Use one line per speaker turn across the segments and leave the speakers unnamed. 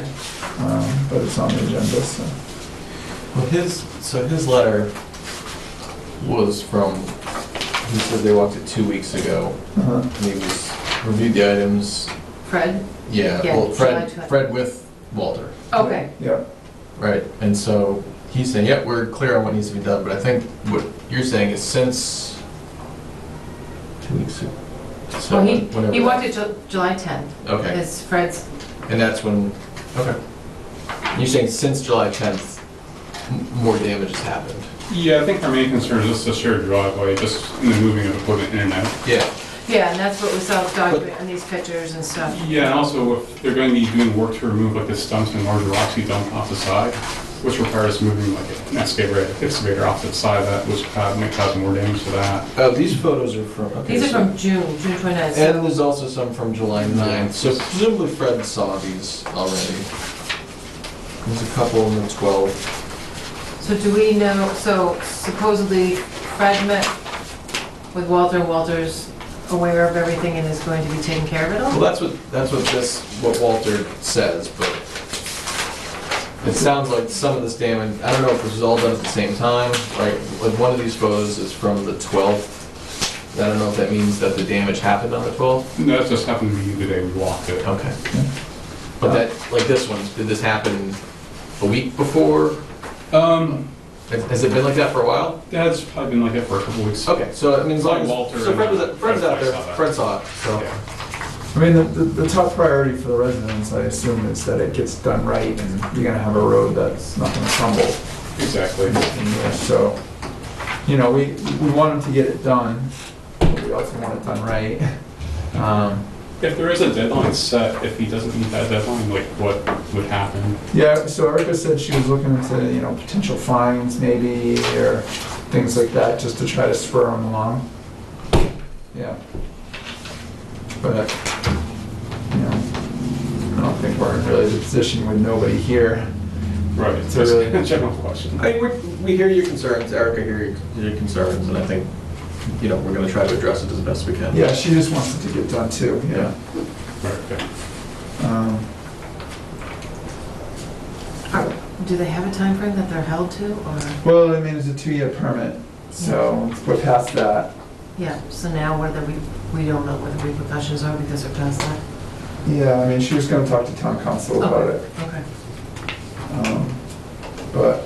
um, but it's on the agenda, so.
Well, his, so his letter was from, he said they walked it two weeks ago,
uh-huh.
and he was, reviewed the items,
Fred?
yeah,
Yeah,
well, Fred,
July twen-
Fred with Walter,
Okay,
Yeah,
right? And so he's saying, yeah, we're clear on what needs to be done, but I think what you're saying is since two weeks ago, so
well, he,
whatever.
he
that-
wanted Ju- July 10th.
Okay.
Is Fred's,
And that's when, okay. You're saying since July 10th, m- more damage has happened?
Yeah, I think our main concern is just the shared driveway, just in the moving of equipment in and out.
Yeah.
yeah, and that's what we saw
But-
on these pictures and stuff.
Yeah, and also if they're going to be doing work to remove like the stumps and larger rocks you dump off the side, which requires moving like an excavator, excavator off to the side of that, which uh, might cause more damage to that.
Oh, these photos are from, okay.
These are
so-
from June, June 29th.
And
so-
there's also some from July 9th, so presumably Fred saw these already. There's a couple in the 12.
So do we know, so supposedly Fred met with Walter, and Walter's aware of everything and is going to be taking care of it
Well,
all?
that's what, that's what this, what Walter says, but it sounds like some of this damage, I don't know if this was all done at the same time, like, like one of these photos is from the 12th. I don't know if that means that the damage happened on the 12th.
And that just happened to be the day we walked it.
Okay. But that, like this one, did this happen a week before?
Um,
Has- Has it been like that for a while?
that's probably been like that for a couple weeks.
Okay, so I mean, as long as,
Walter
so Fred was,
and-
Fred's out there,
I saw that.
Fred saw it, so.
Yeah.
I mean, the, the the top priority for the residents, I assume, is that it gets done right and you're gonna have a road that's not gonna crumble.
Exactly.
So, you know, we, we want them to get it done, but we also want it done right. Um,
If there is a deadline set, if he doesn't meet that deadline, like what would happen?
Yeah, so Erica said she was looking into, you know, potential fines maybe, or things like that, just to try to spur them along. Yeah. But, you know, I don't think we're in really the position with nobody here.
Right.
It's a really-
That's a general question.
I mean, we, we hear your concerns, Erica hear your, your concerns, and I think, you know, we're gonna try to address it as best we can.
Yeah, she just wants it to get done too, yeah.
Right, okay.
Um,
Or Do they have a time frame that they're held to, or,
Well, I mean, it's a two-year permit, so we're past that.
yeah, so now whether we, we don't know what the repercussions are because they're past that?
Yeah, I mean, she was gonna talk to town council about it.
Okay.
um, But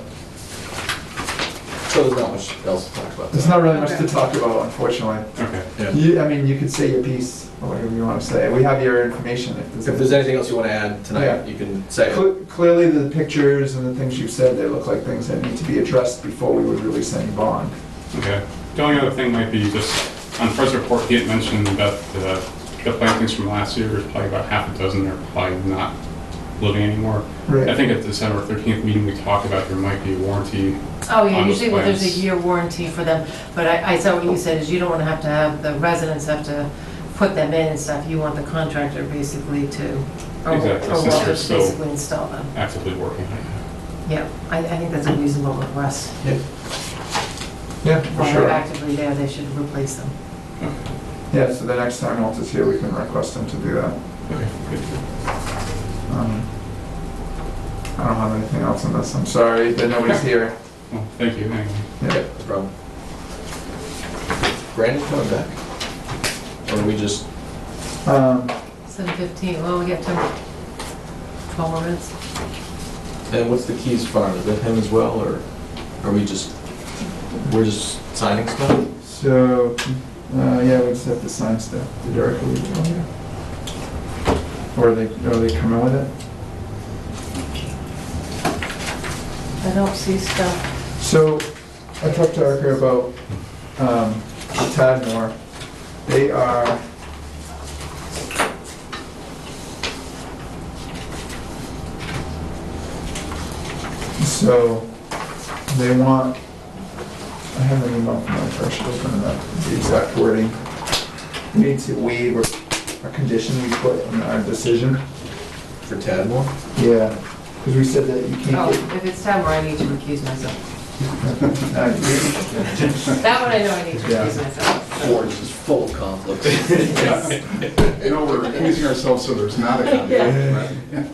So there's not much else to talk about.
there's not really much to talk about, unfortunately.
Okay.
Yeah.
You, I mean, you could say your piece, or whatever you want to say. We have your information if
If
there's.
there's anything else you wanna add
Yeah.
tonight, you can say it.
Cle- Clearly, the pictures and the things you've said, they look like things that need to be addressed before we would release any bond.
Okay. The only other thing might be just, on Fred's report, he had mentioned that uh, the plantings from last year, there's probably about half a dozen that are probably not living anymore. I think at the December 13th meeting, we talked about there might be a warranty.
Oh, yeah,
on those
usually well, there's a
plans.
year warranty for them, but I, I saw what you said, is you don't want to have to have, the residents have to put them in and stuff, you want the contractor basically to, or
Exactly,
or
since
Walter
they're
to
still-
basically install them.
Actively working on it.
Yeah, I, I think that's a reasonable request.
Yeah, for
While they're
sure.
actively there, they should replace them.
Yeah, so the next time Walter's here, we can request him to do that.
Okay. good.
Um, I don't have anything else on this. I'm sorry that nobody's here.
Well, thank you. anyway.
Yeah.
Okay, no problem. Brandon coming back? Or are we just,
Um,
Seven fifteen, well, we get to twelve more minutes.
and what's the Keys farm? Is that him as well, or are we just, we're just signing stuff?
So, uh, yeah, we just have to sign stuff. Did Erica leave it on here? Or are they, are they coming with it?
I don't see stuff.
So I talked to Erica about um, Tadmore. They are. So they want, I have an email from my first open up, the exact wording. We need to waive a- a condition we put in our decision.
For Tadmore?
Yeah, because we said that you can't
Oh, if it's time where I need to recuse myself.
get. uh, you-
That one I know I need to
Yeah.
recuse myself.
Ford is just full of conflict.
You know, we're accusing ourselves so there's not a conflict,
Yeah.
right?